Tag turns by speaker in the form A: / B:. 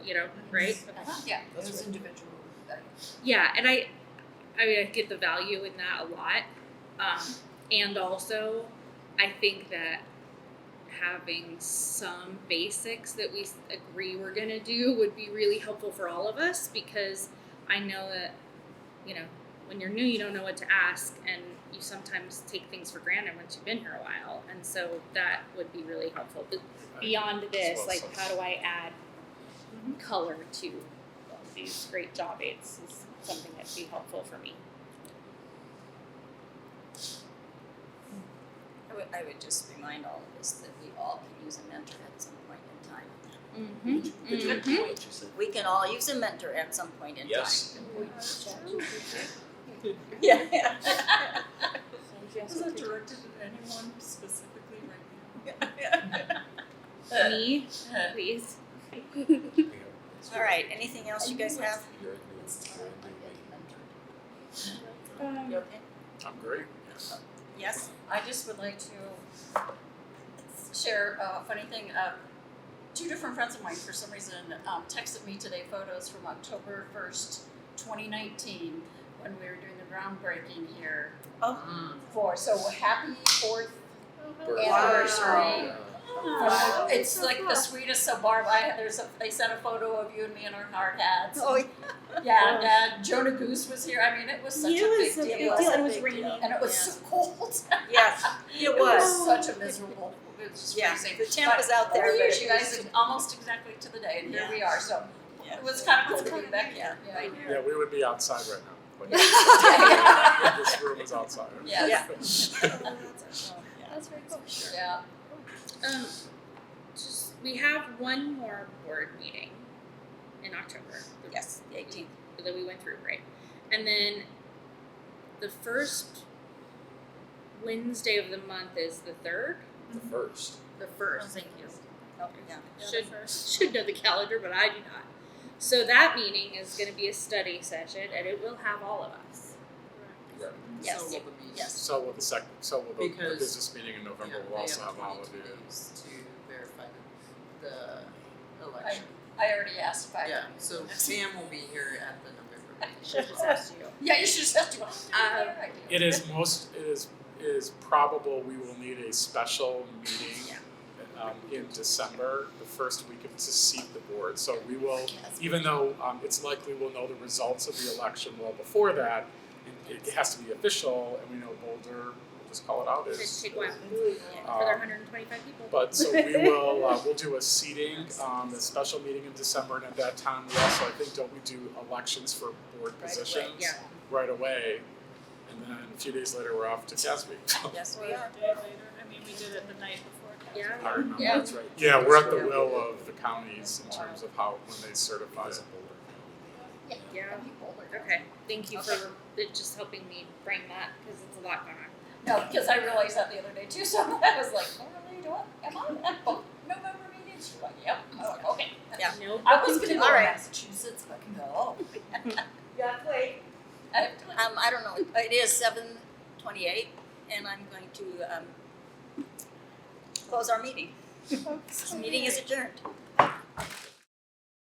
A: you know, right?
B: Yeah,
C: That's
B: it was
C: right.
B: individual. like,
A: Yeah, and I, I mean, I get the value in that a lot, um, and also, I think that having some basics that we s- agree we're gonna do would be really helpful for all of us because I know that, you know, when you're new, you don't know what to ask, and you sometimes take things for granted once you've been here a while, and so that would be really helpful. But beyond this,
C: well
A: like
C: said.
A: how do I add color to these great job aids is something that'd be helpful for me.
D: I would, I would just remind all of us that we all can use a mentor at some point in time.
A: Mm-hmm.
C: Good
A: Mhm.
C: point, you said.
D: We can all use a mentor at some point in
C: Yes.
A: Mm-hmm.
D: time. Yeah.
B: Was that directed at anyone specifically right now?
A: Me, please.
C: We have-
D: All right, anything else you guys have?
C: You're in the- you're in the meeting.
A: Um,
D: You okay?
C: I'm great, yes.
D: Yes?
E: I just would like to share a funny thing. Uh, two different friends of mine, for some reason, um, texted me today photos from October 1st, 2019, when we were doing the groundbreaking here. Mm.
D: Oh.
E: For, so happy fourth
C: Bird.
E: anniversary.
C: Yeah.
D: Wow.
E: It's like the sweetest. So Barb, I, there's a, they sent a photo of you and me in our hard hats.
D: Oh,
E: Yeah, and uh, Jonah Goose was here. I mean, it was such a big deal.
A: It was raining.
E: And it was
D: Yeah.
E: so cold.
D: Yes, it was.
E: such a miserable. It was just
D: Yeah,
E: freezing.
D: the temp was out there,
E: But
D: but
E: we
D: it
E: you guys
D: was-
E: almost exactly to the day, and here we are. So
D: Yeah.
E: it was kind of cool
D: It's
E: to be
D: kinda
E: back
D: neat,
E: here.
D: yeah. Right.
F: Yeah, we would be outside right now. But
E: Yeah.
F: this room is outside.
E: Yes.
B: That's very cool.
E: Yeah.
A: Um, just, we have one more board meeting in October. the-
D: Yes, the eighteenth.
A: That we went through, right? And then the first Wednesday of the month is the third.
C: The first.
A: The first.
D: Thank you. Oh, yeah.
A: should should know the calendar, but I do not. So that meeting is going to be a study session, and it will have all of us.
D: Yes.
B: So will the
D: Yes.
F: So will the sec, so will the- the
B: Because-
F: business meeting in November will also have all of you.
B: To verify the, the election.
E: election. I already asked if I.
B: Yeah, so Sam will be here at the November
E: Should
B: meeting.
E: just asked you. Yeah, you should just ask you.
A: Um,
F: It is most, it is, it is probable we will need a special meeting um in December, the first week of, to seat the board. So we will, even though um it's likely we'll know the results of the election well before that, it it has to be official and we know Boulder, we'll just call it out as.
A: Just take one
F: um,
A: for their 125 people.
F: But so we will, uh, we'll do a seating, um, a special meeting in December, and at that time, we also, I think, don't we do elections for board positions?
A: yeah.
F: Right away, and then a few days later, we're off to CASB.
D: Yes, we are.
G: day later. I mean, we did it the night before.
A: Yeah.
F: I remember,
E: Yeah.
F: that's right. Yeah, we're at the will of the counties in terms of how, when they certify a board.
A: Yeah. Okay. Thank you for it just helping me bring that because it's a lot going on.
E: No, because I realized that the other day too. So I was like, oh, really? Do I? Am I at both November meetings? She's like, yep. I was like, okay.
D: Yeah.
A: No.
E: I was gonna go to
D: All right.
E: Massachusetts, but no.
D: Yeah, wait.
E: I have to.
D: Um, I don't know, it is seven twenty-eight, and I'm going to, um, close our meeting. This meeting is adjourned.